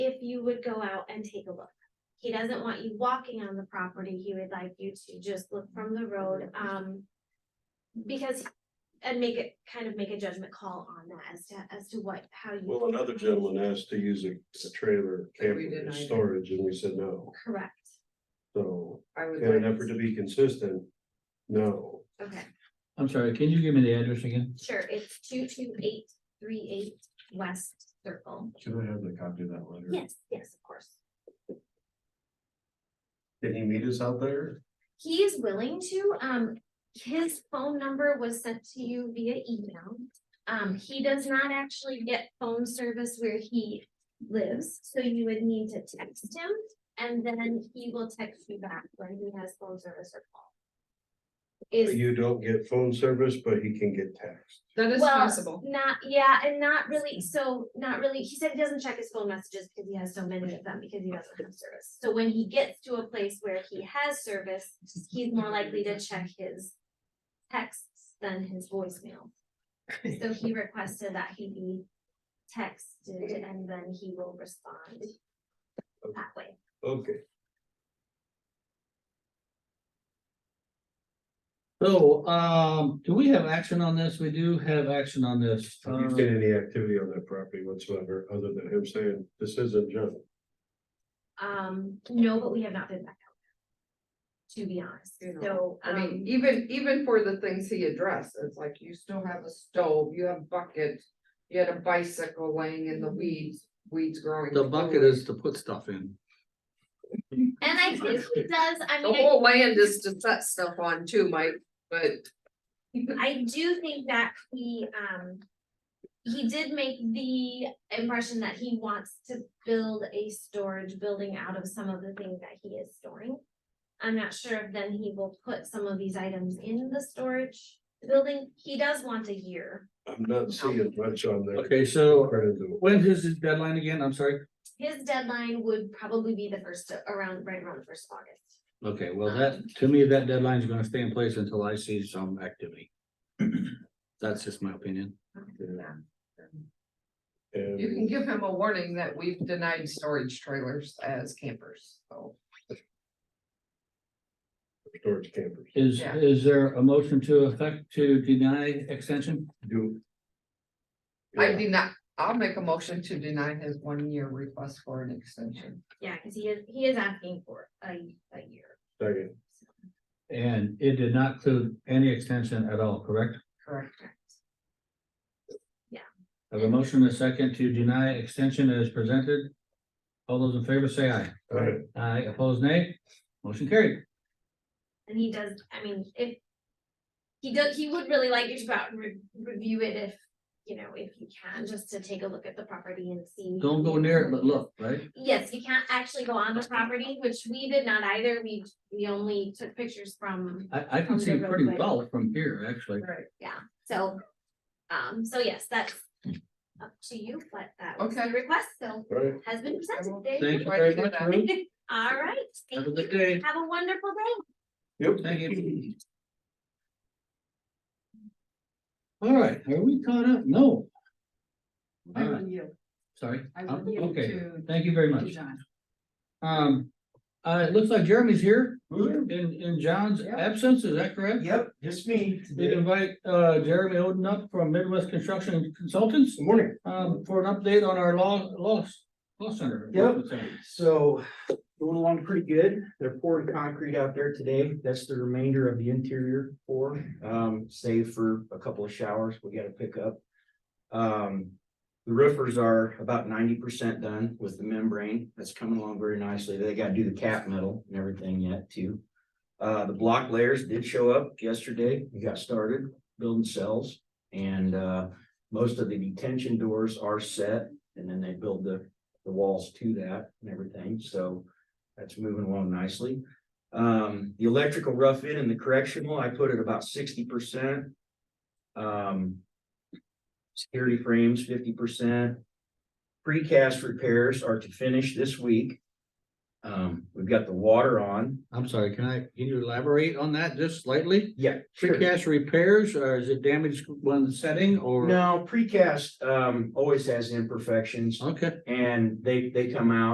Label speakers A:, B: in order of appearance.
A: you would go out and take a look. He doesn't want you walking on the property, he would like you to just look from the road, um. Because, and make it, kind of make a judgment call on that as to, as to what, how you.
B: Well, another gentleman asked to use a, a trailer
C: We
B: camper
C: denied
B: as
C: it.
B: storage, and we said no,
A: Correct,
B: so,
C: I would
B: in an
C: like,
B: effort to be consistent, no.
A: okay,
D: I'm sorry, can you give me the address again?
A: sure, it's two two eight three eight West Circle.
B: Can I have the copy of that letter?
A: Yes, yes, of course.
B: Did he meet us out there?
A: He is willing to, um, his phone number was sent to you via email. Um, he does not actually get phone service where he lives, so you would need to text him. And then he will text you back when he has phone service or call. Is,
B: You don't get phone service, but he can get text.
C: that is
A: well,
C: possible.
A: not, yeah, and not really, so not really, he said he doesn't check his phone messages because he has so many of them because he doesn't have service. So when he gets to a place where he has service, he's more likely to check his texts than his voicemail. So he requested that he be texted and then he will respond that way.
B: Okay,
D: So, um, do we have action on this? We do have action on this.
B: Have you
D: Um,
B: get any activity on that property whatsoever, other than him saying, this isn't junk.
A: Um, no, but we have not been back out there. To be honest,
C: You know,
A: so,
C: I mean,
A: um,
C: even, even for the things he addressed, it's like you still have a stove, you have buckets, you had a bicycle laying in the weeds, weeds growing.
D: The bucket is to put stuff in.
A: um, and I think he does, I
C: The
A: mean, I-
C: whole land is to set stuff on too, Mike, but
A: I do think that he, um. He did make the impression that he wants to build a storage building out of some of the things that he is storing. I'm not sure if then he will put some of these items in the storage building. He does want a year.
B: I'm not seeing much on there.
D: Okay, so
B: Credit to it.
D: when is his deadline again? I'm sorry.
A: His deadline would probably be the first, around, right around the first of August.
D: Okay, well, that, to me, that deadline is gonna stay in place until I see some activity. That's just my opinion.
B: Yeah.
C: you
B: And
C: can give him a warning that we've denied storage trailers as campers, so.
B: storage campers,
D: Is,
C: Yeah.
D: is there a motion to effect to deny extension?
B: do.
C: I
B: Yeah.
C: do not, I'll make a motion to deny his one year request for an extension.
A: Yeah, cause he is, he is asking for a, a year.
B: Second,
D: And it did not include any extension at all, correct?
C: Correct.
D: I Have a motion and a second to deny extension as presented. All those in favor say aye.
B: Aye.
D: Aye, opposed nay, motion carried.
A: And he does, I mean, if. He does, he would really like you to go out and re- review it if, you know, if you can, just to take a look at the property and see.
D: Don't go near it, but look, right?
A: Yes, you can't actually go on the property, which we did not either. We, we only took pictures from,
D: I, I can see pretty well from here, actually.
C: Right.
A: so. Um, so yes, that's up to you, but that was the
C: Okay.
A: request, so
B: all right.
A: has been presented. There
D: Thank
A: you
D: you very much, Ruth.
A: go. All right,
D: Have
A: thank
D: a good
A: you.
D: day.
A: Have a wonderful day.
D: Thank you. All right, are we caught up? No, I will
C: you.
D: sorry. Uh, Okay, thank you very much. Um, uh, it looks like Jeremy's here in, in John's
C: Yeah.
D: absence, is that correct?
E: Yep, just me.
D: We
E: Good
D: invite uh Jeremy Oden up from Midwest Construction Consultants
E: morning.
D: um for an update on our law loss law center.
E: Yep. So going along pretty good. They're pouring concrete out there today. That's the remainder of the interior pour, um, save for a couple of showers we gotta pick up. Um, the roofers are about ninety percent done with the membrane. That's coming along very nicely. They gotta do the cap metal and everything yet too. Uh, the block layers did show up yesterday. We got started building cells and, uh, most of the detention doors are set and then they build the the walls to that and everything, so that's moving along nicely. Um, the electrical rough in and the correctional, I put it about sixty percent. Um. Security frames, fifty percent. Precast repairs are to finish this week. Um, we've got the water on.
D: I'm sorry, can I, can you elaborate on that just slightly?
E: Yeah. sure.
D: Precast repairs or is it damaged when setting or?
E: No, precast, um, always has imperfections
D: Okay.
E: and they, they come out